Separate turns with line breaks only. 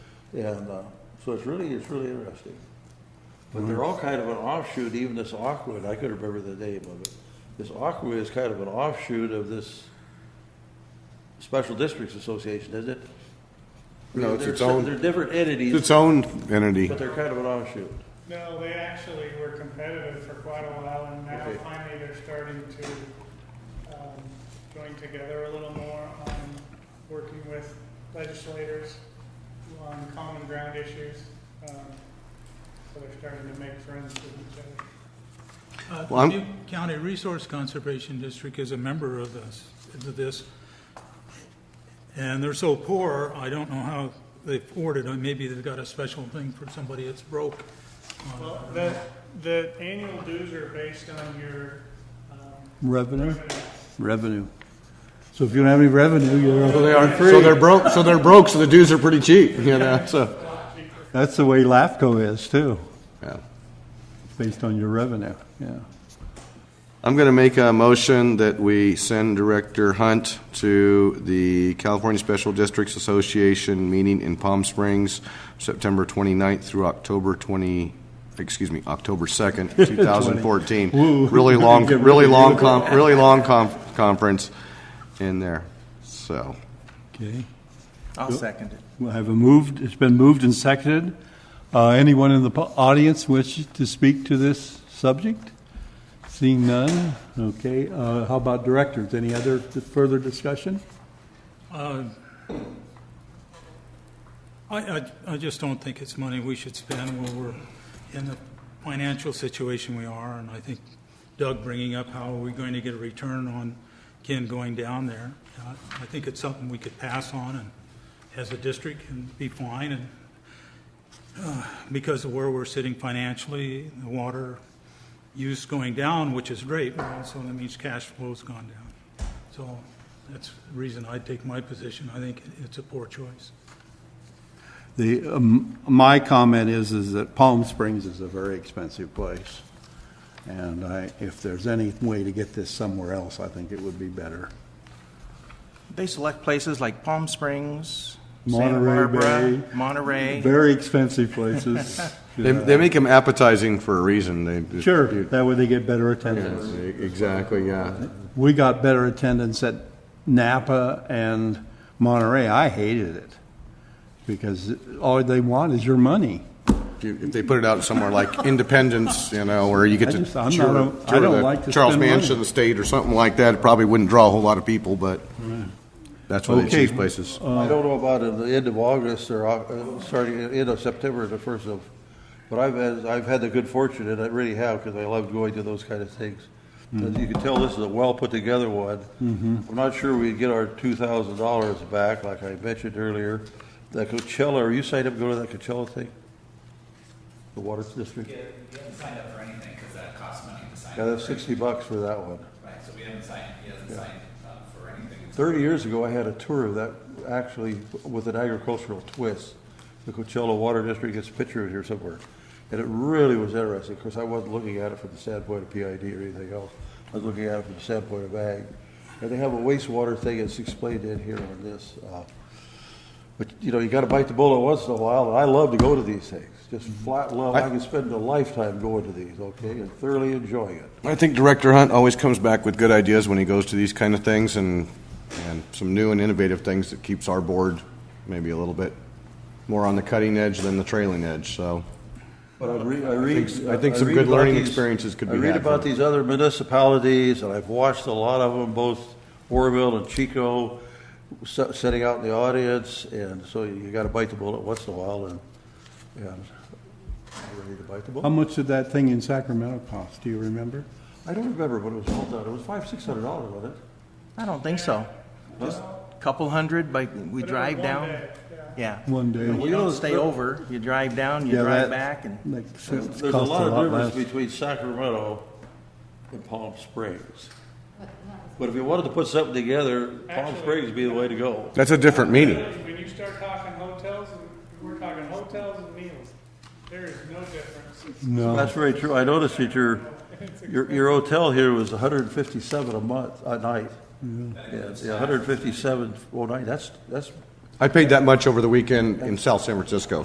And uh, so it's really, it's really interesting. But
Mm-hmm.
they're all kind of an offshoot, even this Aquid, I couldn't remember the name of it. This Aquid is kind of an offshoot of this Special Districts Association, isn't it?
No, it's
They're
its
se-
own-
They're different
It's
entities,
its own entity.
but they're kind of an offshoot.
No, they actually were competitive for quite a while, and now
Okay.
finally they're starting to um, join together a little more on working with legislators on common ground issues. Um, So they're starting to make friends with each other.
Uh,
Well, I'm-
The Butte County Resource Conservation District is a member of this, of this, and they're so poor, I don't know how they afford it, or maybe they've got a special thing for somebody that's broke.
Well, the, the annual dues are based on your um,
Revenue,
revenue.
revenue. So if you don't have any revenue,
So
you're,
they aren't So they're broke, so they're broke, so the dues are pretty cheap, you know, so,
that's the way LAFCO is too,
yeah.
based on your revenue, yeah.
I'm going to make a motion that we send Director Hunt to the California Special Districts Association meeting in Palm Springs, September 29th through October 20, excuse me, October 2nd, 2014.
Woo.
Really long,
Get
really
rid of
long,
you.
com- really long conf- conference in there, so.
Okay,
I'll second it.
we have a moved, it's been moved and seconded. Uh, anyone in the pu- audience wish to speak to this subject? Seeing none, okay, uh, how about directors? Any other further discussion?
Uh, I, I, I just don't think it's money we should spend when we're in the financial situation we are, and I think Doug bringing up how are we going to get a return on Ken going down there, uh, I think it's something we could pass on and, as a district, and be fine, and, uh, because of where we're sitting financially, the water use going down, which is great, but also that means cash flow's gone down. So that's the reason I take my position. I think it's a poor choice.
The, um, my comment is, is that Palm Springs is a very expensive place. And I, if there's any way to get this somewhere else, I think it would be better.
They select places like Palm Springs, Santa
Monterey
Barbara,
Bay.
Monterey.
Very expensive places.
They, they make them appetizing for a reason, they. just-
Sure, that way they get better
Yes,
attendance.
Exactly, yeah.
We got better attendance at Napa and Monterey. I hated it. Because all they want is your money.
If you- if they put it out somewhere like Independence, you know, where you get
I
to
just- I'm
tour
not a-
the-
I
tour
don't
the
like to
Charles
spend money.
Manson Estate or something like that, it probably wouldn't draw a whole lot of people, but that's where they
Okay. Uh,
choose places.
I don't know about at the end of August or uh, starting at the end of September, the first of, but I've had, I've had the good fortune, and I really have, because I love going to those kind of things. As you can tell, this is a well-put-together one. I'm not sure we'd get our two thousand dollars back, like I mentioned earlier. That Coachella, are you signed up to go to that Coachella thing? The Water District?
Yeah, we haven't signed up for anything because that costs money to sign
Yeah,
up,
that's sixty bucks for that one.
right? So we haven't signed, he hasn't signed up for anything.
30 years ago, I had a tour of that, actually with an agricultural twist. The Coachella Water District gets pictured here somewhere. And it really was interesting. Of course, I wasn't looking at it from the standpoint of PID or anything else. I was looking at it from the standpoint of ag. And they have a wastewater thing that's explained in here on this. uh, But, you know, you gotta bite the bullet once in a while, and I love to go to these things. Just flat love. I can spend a lifetime going to these, okay, and thoroughly enjoying it.
I think Director Hunt always comes back with good ideas when he goes to these kind of things and, and some new and innovative things that keeps our board maybe a little bit more on the cutting edge than the trailing edge, so.
But I read, I read.
think- I think some
read
good
about
learning
these-
experiences could be
I read
had
about
from it.
these other municipalities, and I've watched a lot of them, both Warville and Chico, se- sitting out in the audience, and so you gotta bite the bullet once in a while, and, and I'm ready to bite the
How
bullet.
much did that thing in Sacramento cost? Do you remember?
I don't remember what it was all done, it was five, six hundred dollars, wasn't it?
I don't think so. Just couple hundred, like we
But it was
drive
one
down.
day, yeah.
Yeah.
One day.
You
know,
don't stay
the-
over. You drive down, you
Yeah, that-
drive back and.
Like, it's cost
There's a lot of difference
less.
between Sacramento and Palm Springs. But if you wanted to put something together, Palm
Actually-
Springs would be the way to go.
That's a different meeting.
When you start talking hotels, and- we're talking hotels and meals. There is no difference.
No,
That's very true. I noticed that your, your, your hotel here was hundred and fifty-seven a month, a night. Yeah, yeah, hundred and fifty-seven, well, night, that's, that's
I paid that much over the weekend in South San Francisco,